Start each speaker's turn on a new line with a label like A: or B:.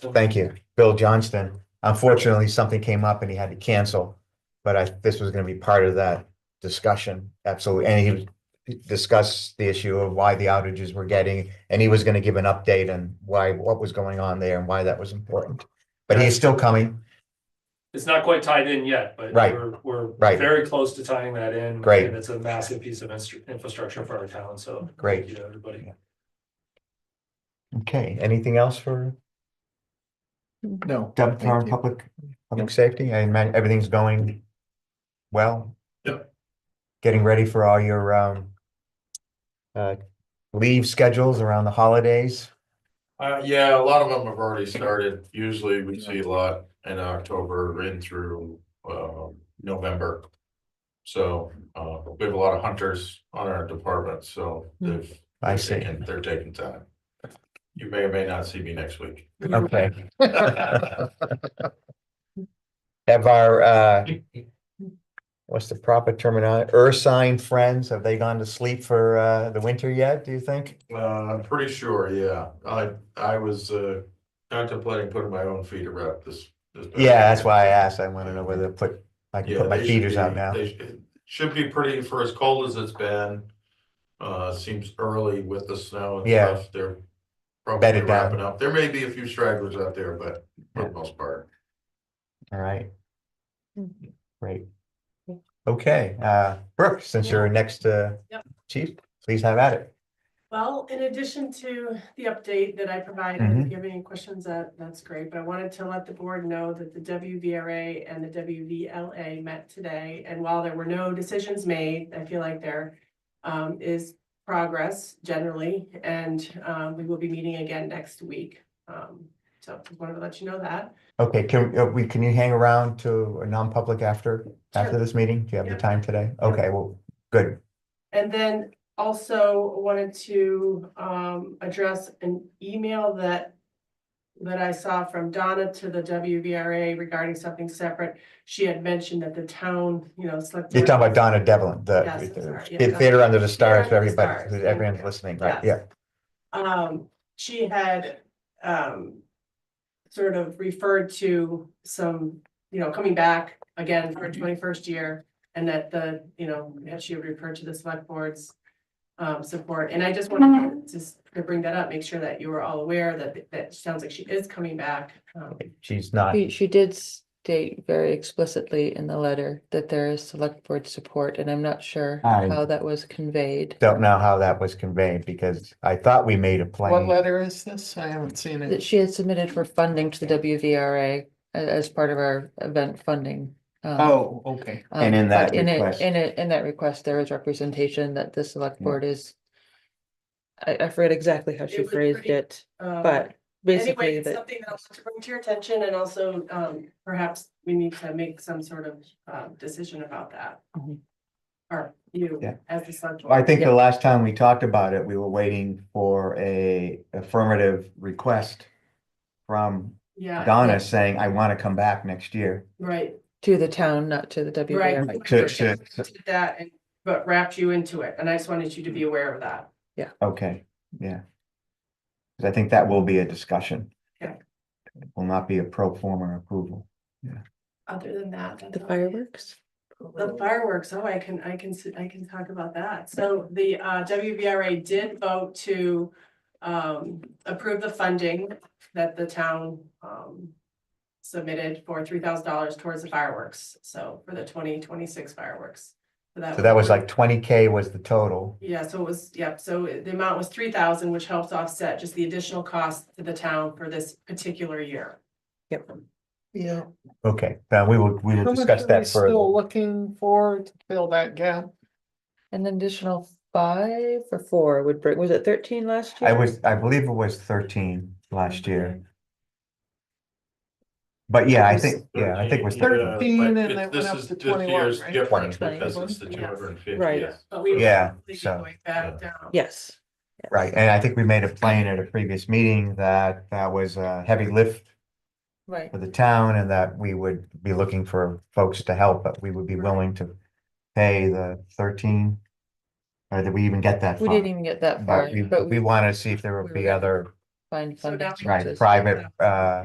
A: Thank you, Bill Johnston. Unfortunately, something came up and he had to cancel. But I, this was gonna be part of that discussion, absolutely. And he discussed the issue of why the outages were getting, and he was gonna give an update on why, what was going on there and why that was important. But he's still coming.
B: It's not quite tied in yet, but
A: Right.
B: we're, we're
A: Right.
B: very close to tying that in.
A: Great.
B: And it's a massive piece of instru- infrastructure for our town, so.
A: Great.
B: Thank you to everybody.
A: Okay, anything else for
C: No.
A: Deb for our
C: Thank you.
A: public, public safety? I imagine everything's going well.
B: Yep.
A: Getting ready for all your um uh leave schedules around the holidays.
D: Uh, yeah, a lot of them have already started. Usually we see a lot in October in through, um, November. So, uh, we have a lot of hunters on our department, so they've.
A: Hmm. I
D: they're
A: see.
D: taking- They're taking time. You may or may not see me next week. Uh,
A: Okay. Have our uh what's the proper terminology? Ursine friends, have they gone to sleep for uh the winter yet, do you think?
D: Uh, I'm pretty sure, yeah. I, I was, uh, contemplating putting my own feet around this. this-
A: Yeah, that's why I asked. I want to know whether to put, I can
D: Yeah,
A: put my
D: they should
A: feeders out
D: be-
A: now.
D: they sh- it Should be pretty, for as cold as it's been, uh, seems early with the snow and
A: Yeah.
D: stuff, they're probably
A: Bedded down.
D: wrapping up. There may be a few stragglers out there, but for the most part.
A: All right.
E: Mhm.
A: Great. Okay, uh, Brooke, since you're next to
E: Yep.
A: chief, please have at it.
E: Well, in addition to the update that I provided, if you have any questions, that, that's great, but I wanted to let the board know that the WVRA and the WVLA met today, and while there were no decisions made, I feel like there um, is progress generally, and, um, we will be meeting again next week. Um, so just wanted to let you know that.
A: Okay, can, uh, we, can you hang around to a non-public after, after
E: Sure.
A: this meeting? Do you have the
E: Yep.
A: time today? Okay, well, good.
E: And then also wanted to um address an email that. That I saw from Donna to the WVRA regarding something separate. She had mentioned that the town, you know, select.
A: You're talking about Donna Devlin,
E: Yes, I'm
A: the
E: sorry, yeah,
A: the
E: Donna-
A: Theater Under the Stars, for
E: Under the
A: everybody,
E: Stars,
A: who-
E: yeah,
A: everyone's
E: yeah.
A: listening, right? Yeah.
E: Yes. Um, she had um. Sort of referred to some, you know, coming back again for
A: Mm-hmm.
E: twenty first year. And that the, you know, that she referred to the select board's um support, and I just
A: Mm-hmm.
E: wanted to s- to bring that up, make sure that you were all aware that that sounds like she is coming back. Um,
A: She's not,
F: She, she did state very explicitly in the letter that there is select board support, and I'm not sure
A: I-
F: how that was conveyed.
A: don't know how that was conveyed because I thought we made a
C: What
A: plan.
C: letter is this? I haven't seen
F: That
C: it.
F: she had submitted for funding to the WVRA a- uh, as part of our event funding. um,
C: Oh, okay.
F: um,
A: And in that
F: but it-
A: request- Mm.
F: In it, in that request, there was representation that the select
A: Yeah.
F: board is. I, I forget exactly how
E: It
F: she
E: was
F: phrased
E: pretty-
F: it,
E: um,
F: but
E: Anyway,
F: basically
E: it's
F: that,
E: something that I want to bring to your attention, and also um perhaps we need to make some sort of um decision about that.
F: Mhm.
E: Or you
A: Mm-hmm. Yeah.
E: as the select. board.
A: I think the
F: Yeah.
A: last time we talked about it, we were waiting for a affirmative request from
E: Yeah.
A: Donna saying, I want to come back next year.
E: Right,
F: to the town, not to the
E: right.
F: WVRA.
A: Sure, sure.
E: Did That and, but wrapped you into it, and I just wanted you to be aware of that.
A: Okay, yeah. 'Cause I think that will be a discussion.
E: Yeah.
A: It Will not be a pro forma approval.
E: Other than that. that's
F: The
E: all.
F: fireworks?
E: The fireworks, oh, I can, I can, s- I can talk about that. So the uh WVRA did vote to um approve the funding that the town um submitted for three thousand dollars towards the fireworks, so for the twenty twenty-six fireworks.
A: So that was like twenty K was the total.
E: Yeah, so it was, yep, so it- the amount was three thousand, which helps offset just the additional cost to the town for this particular year.
F: Yep.
C: Yeah.
A: Okay, now we will, we will discuss that
C: Still
A: further.
C: looking for to fill that gap.
F: An additional five or four would bring, was it thirteen last year?
A: I was, I believe it was thirteen last year. But yeah, I think, yeah, I think it was thirteen.
C: Thirteen, yeah. 13, and
D: but
C: they
D: this
C: went up
D: is-
C: to
D: this
C: 21,
D: year's
C: right?
D: different
F: 20.
D: Because it's the
E: Yes.
D: two hundred and fifty,
F: Right.
D: yes.
E: But we. will
A: Yeah,
E: probably be
A: so-
E: going Back down.
F: Yes.
A: Right, and I think we made a plan at a previous meeting that that was a heavy lift
F: Right.
A: for the town and that we would be looking for folks to help, but we would be willing to pay the thirteen. Or did we even get that?
F: We
A: far?
F: didn't even get that far,
A: But we,
F: but
A: we
F: we
A: wanted to see if there
F: we
A: would
F: were
A: be
F: able
A: other,
F: find
E: So
F: funding.
E: now we
A: right,
F: sources.
A: private, uh,